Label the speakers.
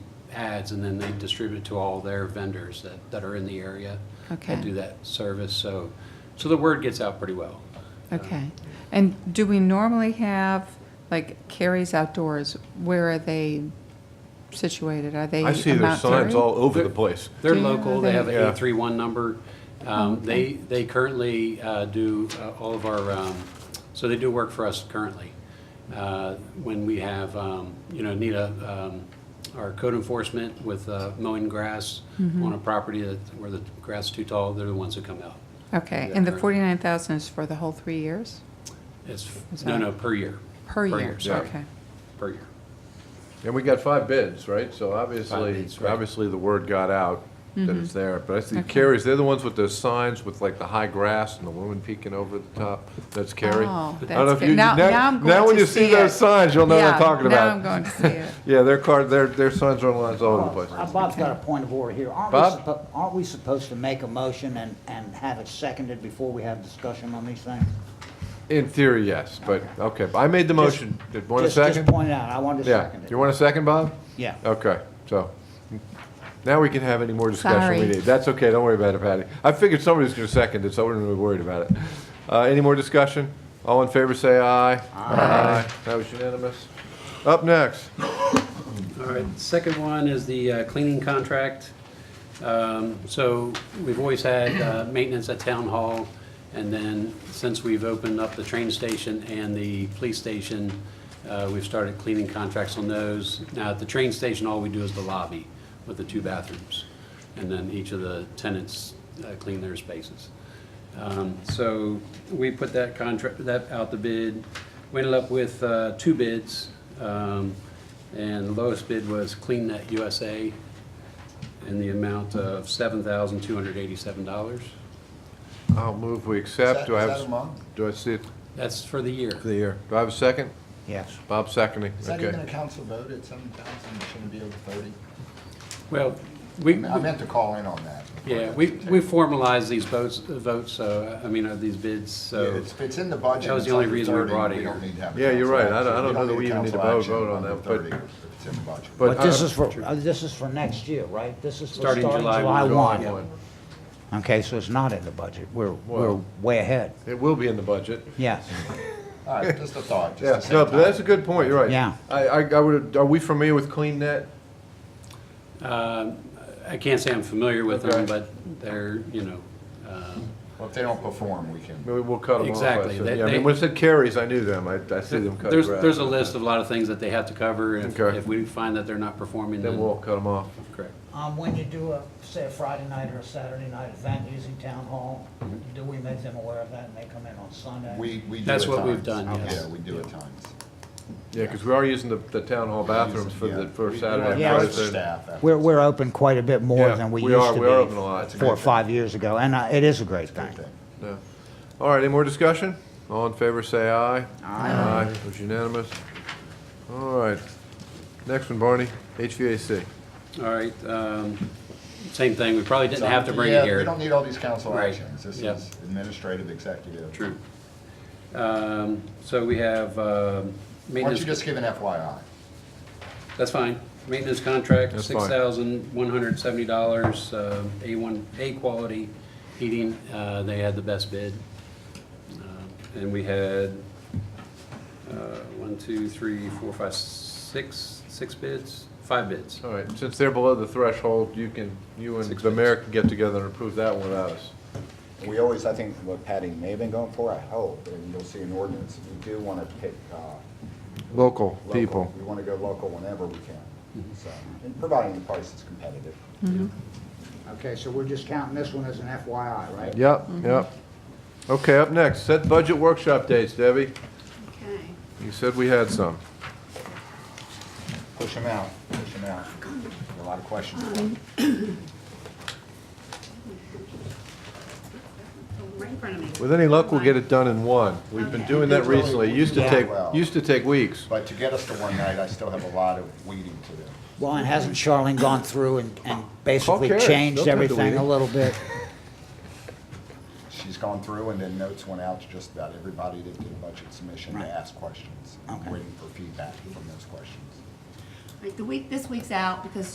Speaker 1: ads, and then they distribute it to all their vendors that, that are in the area.
Speaker 2: Okay.
Speaker 1: That do that service, so, so the word gets out pretty well.
Speaker 2: Okay. And do we normally have, like Carrie's Outdoors, where are they situated? Are they
Speaker 3: I see
Speaker 2: on
Speaker 3: there's
Speaker 2: Mount
Speaker 3: signs
Speaker 2: Airy?
Speaker 3: all over the
Speaker 1: They're-
Speaker 3: place.
Speaker 1: They're
Speaker 2: Do you know
Speaker 1: local, they have an
Speaker 3: they- Yeah.
Speaker 1: 831 number. Um, They, they currently uh, do uh, all of our, um, so they do work for us currently. Uh, When we have, um, you know, need a, um, our code enforcement with uh, mowing grass
Speaker 2: Mm-hmm.
Speaker 1: on a property that, where the grass is too tall, they're the ones that come out.
Speaker 2: Okay,
Speaker 1: Yeah,
Speaker 2: and the
Speaker 1: currently.
Speaker 2: 49,000 is for the whole three years?
Speaker 1: It's,
Speaker 2: Is
Speaker 1: no,
Speaker 2: that-
Speaker 1: no, per year.
Speaker 2: Per year?
Speaker 1: sorry.
Speaker 2: Okay.
Speaker 1: Per year.
Speaker 3: And we got five bids, right? So obviously,
Speaker 1: bids, right.
Speaker 3: obviously the word got out that
Speaker 2: Mm-hmm.
Speaker 3: it's there. But I see Carrie's, they're the ones with those signs with like the high grass and the woman peeking over the top. That's Carrie.
Speaker 2: Oh,
Speaker 3: I don't
Speaker 2: that's
Speaker 3: know if
Speaker 2: good.
Speaker 3: you-
Speaker 2: Now- now I'm
Speaker 3: Now
Speaker 2: going
Speaker 3: when
Speaker 2: to
Speaker 3: you see
Speaker 2: see
Speaker 3: those
Speaker 2: it.
Speaker 3: signs, you'll know what
Speaker 2: Yeah,
Speaker 3: I'm talking
Speaker 2: now
Speaker 3: about.
Speaker 2: I'm going to see it.
Speaker 3: Yeah, their car, their, their signs are on lines all over the place.
Speaker 4: Uh, Bob's got a point of order here. Aren't we
Speaker 3: Bob?
Speaker 4: suppo- Aren't we supposed to make a motion and, and have it seconded before we have discussion on these things?
Speaker 3: In theory, yes, but, okay, but I made the motion. Did, want a
Speaker 4: Just-
Speaker 3: second?
Speaker 4: Just point it out, I wanted to
Speaker 3: Yeah,
Speaker 4: second it.
Speaker 3: you want a second, Bob?
Speaker 4: Yeah.
Speaker 3: Okay, so, now we can have any more discussion we
Speaker 2: Sorry.
Speaker 3: need. That's okay, don't worry about it, Patty. I figured somebody was gonna second it, so I wouldn't be worried about it. Uh, any more discussion? All in favor, say aye. Aye. That was unanimous. Up next,
Speaker 1: All right, second one is the uh, cleaning contract. Um, So we've always had uh, maintenance at Town Hall, and then since we've opened up the train station and the police station, uh, we've started cleaning contracts on those. Now, at the train station, all we do is the lobby with the two bathrooms, and then each of the tenants uh, clean their spaces. Um, So we put that contract, that out the bid. We ended up with uh, two bids, um, and the lowest bid was CleanNet USA in the amount of $7,287.
Speaker 3: I'll move we accept. Do I have? Do I see it
Speaker 1: That's for the year.
Speaker 3: for the year? Do I have a second?
Speaker 4: Yes.
Speaker 3: Bob seconding,
Speaker 5: Is that even a
Speaker 3: okay.
Speaker 5: council vote at seven thousand, shouldn't it be over thirty?
Speaker 1: Well, we,
Speaker 5: I meant to call in on that.
Speaker 1: yeah, we we formalized these votes, votes, so, I mean, uh, these bids,
Speaker 5: Yeah,
Speaker 1: so.
Speaker 5: It's, it's in the budget.
Speaker 1: That was the
Speaker 5: it's
Speaker 1: only
Speaker 5: under
Speaker 1: reason we
Speaker 5: 30,
Speaker 1: brought it
Speaker 5: we don't
Speaker 1: here.
Speaker 5: need to have a
Speaker 3: Yeah, you're
Speaker 5: council
Speaker 3: right. I don't- I don't
Speaker 5: action. We
Speaker 3: know that we even need to
Speaker 5: council
Speaker 3: vote-
Speaker 5: action
Speaker 3: vote on
Speaker 5: under
Speaker 3: that, but-
Speaker 5: 30 if It's in the budget.
Speaker 3: But
Speaker 4: But this
Speaker 3: I-
Speaker 4: is for, uh, this is for next year, right? This is for
Speaker 1: Starting
Speaker 4: starting
Speaker 1: July
Speaker 4: July
Speaker 1: one.
Speaker 3: July
Speaker 4: one. Okay, so it's not in the budget, we're, we're
Speaker 3: Well-
Speaker 4: way ahead.
Speaker 3: It will be in the budget.
Speaker 4: Yes,
Speaker 5: All right, just a thought, just
Speaker 3: Yeah,
Speaker 5: to save
Speaker 3: no, but
Speaker 5: time.
Speaker 3: that's a good point, you're right.
Speaker 4: Yeah.
Speaker 3: I, I, I would, are we familiar with CleanNet?
Speaker 1: Um, I can't say I'm familiar with them,
Speaker 3: Okay.
Speaker 1: but they're, you know, um,
Speaker 5: Well, if they don't perform, we can.
Speaker 3: Maybe we'll cut them off. I
Speaker 1: Exactly.
Speaker 3: said.
Speaker 1: They-
Speaker 3: Yeah, I
Speaker 1: they-
Speaker 3: mean, when it said carries, I knew them. I, I see them cut
Speaker 1: There's,
Speaker 3: grass.
Speaker 1: there's a list of a lot of things that they have to cover. If,
Speaker 3: Okay.
Speaker 1: if we find that they're not performing,
Speaker 3: Then
Speaker 1: then,
Speaker 3: we'll cut them off.
Speaker 1: correct.
Speaker 4: Um, when you do a, say a Friday night or a Saturday night event using town hall,
Speaker 3: Mm-hmm.
Speaker 4: do we make them aware of that and they come in on Sunday?
Speaker 5: We, we do
Speaker 1: That's
Speaker 5: at
Speaker 1: what we've
Speaker 5: times.
Speaker 1: done, yes.
Speaker 5: Yeah, we do at times.
Speaker 3: Yeah, because we are using the, the town hall bathrooms for the,
Speaker 5: Yeah.
Speaker 3: for
Speaker 5: We-
Speaker 3: Saturday. and
Speaker 4: Yeah.
Speaker 3: Friday,
Speaker 5: Most
Speaker 3: so-
Speaker 5: staff. after-
Speaker 4: We're, we're open quite a bit more
Speaker 3: Yeah,
Speaker 4: than we
Speaker 3: we
Speaker 4: used
Speaker 3: are-
Speaker 4: to be.
Speaker 3: we are open a lot.
Speaker 4: Four or five years ago, and uh, it is a great thing.
Speaker 5: Good thing.
Speaker 3: yeah. All right, any more discussion? All in favor, say aye. Aye. It was unanimous. All right. Next one, Barney, HVAC.
Speaker 1: All right, um, same thing, we probably didn't have to bring
Speaker 5: Yeah,
Speaker 1: it here.
Speaker 5: We don't need all these council
Speaker 1: Right.
Speaker 5: actions. This
Speaker 1: Yeah.
Speaker 5: is administrative, executive.
Speaker 1: True. Um, So we have um,
Speaker 5: Why don't you
Speaker 1: maintenance,
Speaker 5: just give an FYI?
Speaker 1: that's fine. Maintenance contract,
Speaker 3: That's fine.
Speaker 1: $6,170, um, A1, A quality heating, uh, they had the best bid. Um, And we had uh, one, two, three, four, five, six, six bids, five bids.
Speaker 3: All right, since they're below the threshold, you can, you and
Speaker 1: Six
Speaker 3: the mayor
Speaker 1: minutes.
Speaker 3: can get together and approve that one without us.
Speaker 6: We always, I think what Patty may have been going for, I hope, and you'll see an ordinance, we do want to pick uh,
Speaker 3: Local
Speaker 6: local.
Speaker 3: people.
Speaker 6: We want to go local whenever we can, so, and providing the price is competitive.
Speaker 4: Okay, so we're just counting this one as an FYI, right?
Speaker 3: Yep, yep. Okay, up next, set budget workshop dates, Debbie.
Speaker 7: Okay.
Speaker 3: You said we had some.
Speaker 5: Push them out, push them out. A lot of questions.
Speaker 7: Right in front of me.
Speaker 3: With any luck, we'll get it done in one. We've been doing that recently. It used to
Speaker 5: Yeah.
Speaker 3: take,
Speaker 5: Well.
Speaker 3: used to take weeks.
Speaker 5: But to get us to one night, I still have a lot of weeding to do.
Speaker 4: Well, and hasn't Charlene gone through and, and basically
Speaker 3: Carrie. They'll
Speaker 4: changed
Speaker 3: take the
Speaker 4: everything a
Speaker 3: lead.
Speaker 4: little bit?
Speaker 5: She's gone through and then notes went out to just about everybody that did a budget submission to
Speaker 4: Right.
Speaker 5: ask questions. I'm
Speaker 4: Okay.
Speaker 5: Waiting for feedback from those questions.
Speaker 7: Like, The week, this week's out because